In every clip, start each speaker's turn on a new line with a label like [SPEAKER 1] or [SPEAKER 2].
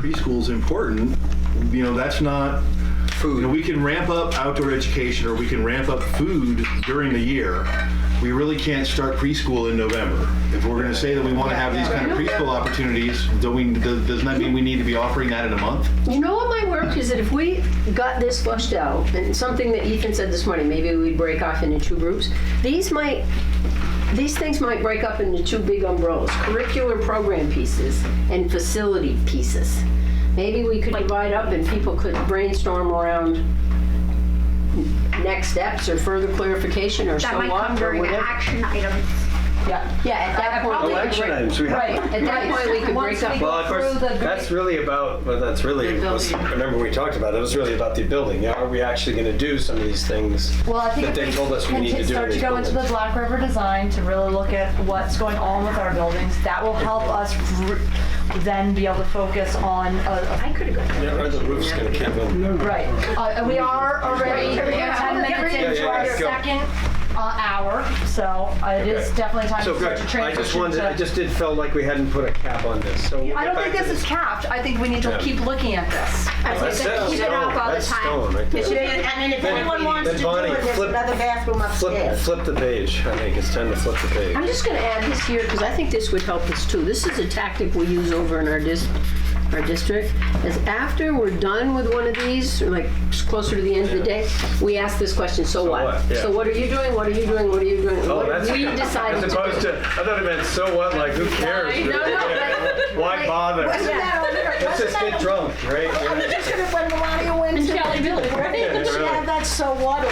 [SPEAKER 1] preschool is important, you know, that's not, you know,
[SPEAKER 2] Food.
[SPEAKER 1] we can ramp up outdoor education or we can ramp up food during the year. We really can't start preschool in November. If we're gonna say that we wanna have these kind of preschool opportunities, do we, does- doesn't that mean we need to be offering that in a month?
[SPEAKER 3] You know what my work is that if we got this flushed out, and something that Ethan said this morning, maybe we'd break off into two groups. These might, these things might break up into two big umbrellas, curricular program pieces and facility pieces. Maybe we could divide up and people could brainstorm around next steps or further clarification or so
[SPEAKER 4] That might
[SPEAKER 3] on
[SPEAKER 4] come
[SPEAKER 3] or
[SPEAKER 4] during the
[SPEAKER 3] whatever.
[SPEAKER 4] action items.
[SPEAKER 3] Yeah, yeah, at that point. we could
[SPEAKER 2] Election
[SPEAKER 3] break-
[SPEAKER 2] items, we have-
[SPEAKER 3] Right, at that point, we could break
[SPEAKER 5] Once we
[SPEAKER 3] up.
[SPEAKER 2] Well, of course,
[SPEAKER 5] Through the
[SPEAKER 2] that's
[SPEAKER 5] grate.
[SPEAKER 2] really about, well, that's really,
[SPEAKER 3] The
[SPEAKER 2] was-
[SPEAKER 3] building.
[SPEAKER 2] remember we talked about it, it was really about the building. Now, Are we actually going to do some of these things
[SPEAKER 5] Well, I think
[SPEAKER 2] that
[SPEAKER 5] if
[SPEAKER 2] they
[SPEAKER 5] we
[SPEAKER 2] told us we
[SPEAKER 5] can
[SPEAKER 2] need to do? in
[SPEAKER 5] start to
[SPEAKER 2] these
[SPEAKER 5] go into the
[SPEAKER 2] buildings?
[SPEAKER 5] Black River design to really look at what's going on with our buildings. That will help us r- then be able to focus on, a-
[SPEAKER 4] I could have gone.
[SPEAKER 2] Yeah, Or the roof's going to cave in.
[SPEAKER 5] a- right. Uh, and We are already
[SPEAKER 4] Yeah, yeah,
[SPEAKER 5] 10
[SPEAKER 4] yeah,
[SPEAKER 5] minutes
[SPEAKER 4] yeah,
[SPEAKER 5] into our
[SPEAKER 2] yeah, go.
[SPEAKER 5] second uh, hour, so uh, it is
[SPEAKER 2] Okay.
[SPEAKER 5] definitely time
[SPEAKER 2] So
[SPEAKER 5] to start
[SPEAKER 2] good,
[SPEAKER 5] to
[SPEAKER 2] I just
[SPEAKER 5] transition
[SPEAKER 2] wanted,
[SPEAKER 5] to.
[SPEAKER 2] I just did, felt like we hadn't put a cap on this, so. we'll
[SPEAKER 5] I
[SPEAKER 2] get
[SPEAKER 5] don't think
[SPEAKER 2] back to
[SPEAKER 5] this is capped. I think we need to
[SPEAKER 2] Yeah.
[SPEAKER 5] keep looking at this.
[SPEAKER 4] I was
[SPEAKER 2] That's
[SPEAKER 4] gonna say, keep it
[SPEAKER 2] stone.
[SPEAKER 4] up all the
[SPEAKER 2] That's
[SPEAKER 4] time.
[SPEAKER 2] stone right there.
[SPEAKER 4] It should be- And then if
[SPEAKER 2] Then-
[SPEAKER 4] anyone wants
[SPEAKER 2] then
[SPEAKER 4] to do
[SPEAKER 2] Bonnie,
[SPEAKER 4] it, there's
[SPEAKER 2] flip-
[SPEAKER 4] another bathroom
[SPEAKER 2] Flip,
[SPEAKER 4] upstairs.
[SPEAKER 2] flip the page, I think, it's time to flip the page.
[SPEAKER 3] I'm just gonna add this here, because I think this would help us too. This is a tactic we use over in our dis, our district, is after we're done with one of these, or like s- closer to the end of the day, we ask this question, so what?
[SPEAKER 2] what? Yeah.
[SPEAKER 3] So what are you doing, what are you doing, what are you doing?
[SPEAKER 2] Oh,
[SPEAKER 3] What
[SPEAKER 2] that's-
[SPEAKER 3] have we decided to
[SPEAKER 2] As
[SPEAKER 3] do?
[SPEAKER 2] opposed to, I thought it meant, so what, like, who cares?
[SPEAKER 3] No, no,
[SPEAKER 2] Why bother? Let's just get drunk, right?
[SPEAKER 4] When Melania wins. Shelly Billy,
[SPEAKER 2] Yeah,
[SPEAKER 4] right? She
[SPEAKER 2] really.
[SPEAKER 4] had that so water.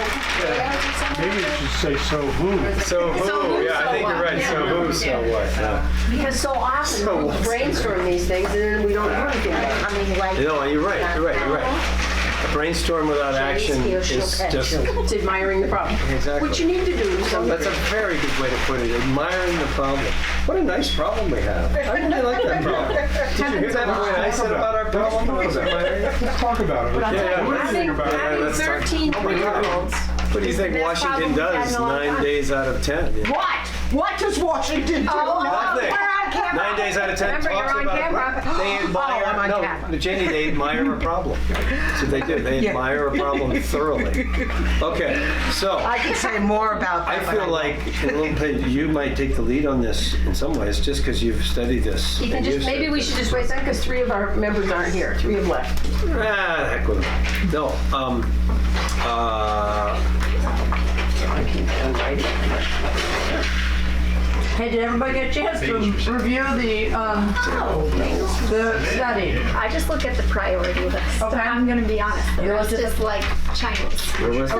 [SPEAKER 6] Maybe it should say so who.
[SPEAKER 2] So who, yeah, I think you're right, so who, so what? yeah.
[SPEAKER 3] Because so
[SPEAKER 2] So
[SPEAKER 3] often, we
[SPEAKER 2] what?
[SPEAKER 3] brainstorm these things, and then we don't do anything.
[SPEAKER 4] I mean,
[SPEAKER 2] You
[SPEAKER 4] like,
[SPEAKER 2] know, you're right, you're right, you're right. A brainstorm without action is just,
[SPEAKER 3] It's admiring the problem.
[SPEAKER 2] Exactly.
[SPEAKER 3] What you need to do is
[SPEAKER 2] that's a very good way to put it, admiring the problem. What a nice problem we have. I really like that problem. Did you hear that, what I said about our problem? That was admiring.
[SPEAKER 6] Let's talk about it. Let's
[SPEAKER 2] Yeah,
[SPEAKER 6] do
[SPEAKER 2] yeah.
[SPEAKER 6] anything about it.
[SPEAKER 3] Having
[SPEAKER 2] Having let's talk-
[SPEAKER 3] 13
[SPEAKER 2] Oh my God.
[SPEAKER 3] three-year-olds.
[SPEAKER 2] What do you think Washington does nine days out of 10? Yeah.
[SPEAKER 4] what? What does Washington do? Oh,
[SPEAKER 2] Nothing.
[SPEAKER 4] We're on camera.
[SPEAKER 2] Nine days out of ten
[SPEAKER 4] Remember,
[SPEAKER 2] talks
[SPEAKER 4] you're on
[SPEAKER 2] about
[SPEAKER 4] camera.
[SPEAKER 2] a problem. They
[SPEAKER 4] Oh, I'm
[SPEAKER 2] admire,
[SPEAKER 4] on
[SPEAKER 2] no,
[SPEAKER 4] camera.
[SPEAKER 2] Jenny, they admire a problem. That's what they do. They admire a problem thoroughly. Okay, so
[SPEAKER 7] I can say more about
[SPEAKER 2] I
[SPEAKER 7] that. but
[SPEAKER 2] feel like a little bit you might take the lead on this in some ways, just because you've studied this.
[SPEAKER 3] Ethan,
[SPEAKER 2] and
[SPEAKER 3] just,
[SPEAKER 2] used
[SPEAKER 3] maybe
[SPEAKER 2] it.
[SPEAKER 3] we should just wait a second, because three of our members aren't here, three have left.
[SPEAKER 2] Ah, heck with it. No. Um, uh,
[SPEAKER 8] Hey, did everybody get a chance to review the, um, the study?
[SPEAKER 4] I just look at the priority list.
[SPEAKER 8] Okay.
[SPEAKER 4] I'm gonna be honest. The
[SPEAKER 8] You're
[SPEAKER 4] rest
[SPEAKER 8] just-
[SPEAKER 4] is like Chinese.
[SPEAKER 2] where was it?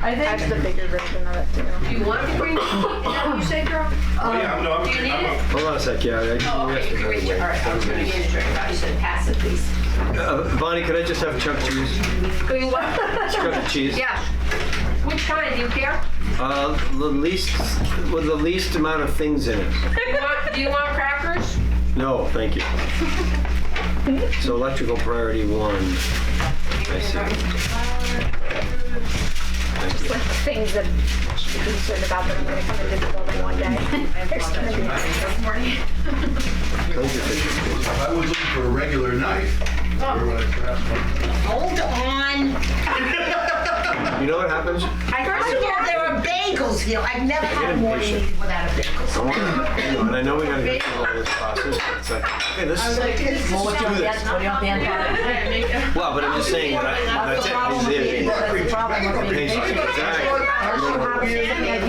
[SPEAKER 8] I
[SPEAKER 4] That's
[SPEAKER 8] think,
[SPEAKER 4] the bigger version of it too.
[SPEAKER 3] Do you want to bring, is that what you said, girl?
[SPEAKER 1] Oh, yeah, no, I'm.
[SPEAKER 3] Do you need it?
[SPEAKER 2] Hold on a sec, yeah. I-
[SPEAKER 3] Oh, okay, you can reach it, all right, I was gonna get a drink, I thought you said pass it, please.
[SPEAKER 2] Uh, Bonnie, could I just have chuck cheese?
[SPEAKER 3] Do you want?
[SPEAKER 2] Chuck cheese?
[SPEAKER 3] Yeah. Which kind, do you care?
[SPEAKER 2] Uh, the least, with the least amount of things in it.
[SPEAKER 3] Do you want, do you want crackers?
[SPEAKER 2] No, thank you. So electrical priority one. I see.
[SPEAKER 4] Just like things that I should be concerned about when I'm gonna come into the building one day. There's gonna be this morning.
[SPEAKER 1] I was looking for a regular knife. Oh.
[SPEAKER 4] Hold on.
[SPEAKER 2] You know what happens?
[SPEAKER 4] First of all, there are bagels here. I've never had a morning
[SPEAKER 2] impatient.
[SPEAKER 4] meeting without a bagel.
[SPEAKER 2] I wanna- hang on, I know we gotta get through all this process, but it's like, okay, this is, let's do this. Well, but I'm just saying, when I- that's it. It's it.
[SPEAKER 5] That's the problem with being
[SPEAKER 2] Patient,
[SPEAKER 5] patient.
[SPEAKER 2] exactly.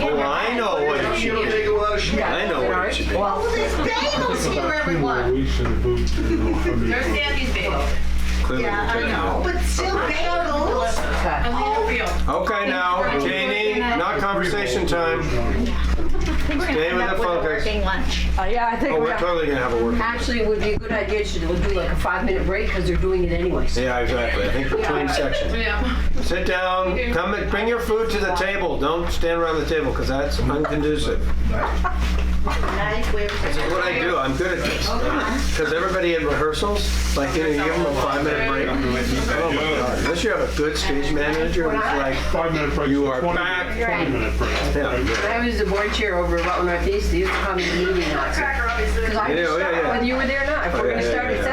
[SPEAKER 2] Oh, I know what it should be. I know what it should be.
[SPEAKER 5] Well,
[SPEAKER 4] Well, there's bagels here, everyone.
[SPEAKER 6] We should have moved to the
[SPEAKER 8] there's Sandy's bagel.
[SPEAKER 2] Clearly
[SPEAKER 4] Yeah,
[SPEAKER 2] we're
[SPEAKER 4] I
[SPEAKER 2] taking
[SPEAKER 4] know,
[SPEAKER 2] it.
[SPEAKER 4] but still bagels.
[SPEAKER 8] I mean, real.
[SPEAKER 2] Okay, now, Janie, not conversation time. Stay with the focus.
[SPEAKER 4] lunch.
[SPEAKER 8] Uh, yeah, I think
[SPEAKER 2] Oh,
[SPEAKER 8] we
[SPEAKER 2] we're
[SPEAKER 8] have,
[SPEAKER 2] totally gonna have a working.
[SPEAKER 3] Actually, it would be a good idea to do like a five-minute break, because they're doing it anyways.
[SPEAKER 2] Yeah, exactly. I think between sections.
[SPEAKER 8] yeah.
[SPEAKER 2] Sit down, come, and bring your food to the table. Don't stand around the table because that's unconducive. That's what I do. I'm good at this. Because everybody at rehearsals, like, you know, you give them a five minute break. Oh my God. Unless you have a good stage manager who's like,
[SPEAKER 6] Five minute break.
[SPEAKER 2] You are
[SPEAKER 6] 20
[SPEAKER 2] back.
[SPEAKER 6] Twenty minute break.
[SPEAKER 2] yeah.
[SPEAKER 3] When I was the board chair over at Rutland Northeast, they used to call me the meeting Nazi. Because I
[SPEAKER 2] Yeah,
[SPEAKER 3] could
[SPEAKER 2] yeah,
[SPEAKER 3] start
[SPEAKER 2] yeah.
[SPEAKER 3] whether you were there or not. If we're
[SPEAKER 2] yeah,
[SPEAKER 3] gonna
[SPEAKER 2] yeah,
[SPEAKER 3] start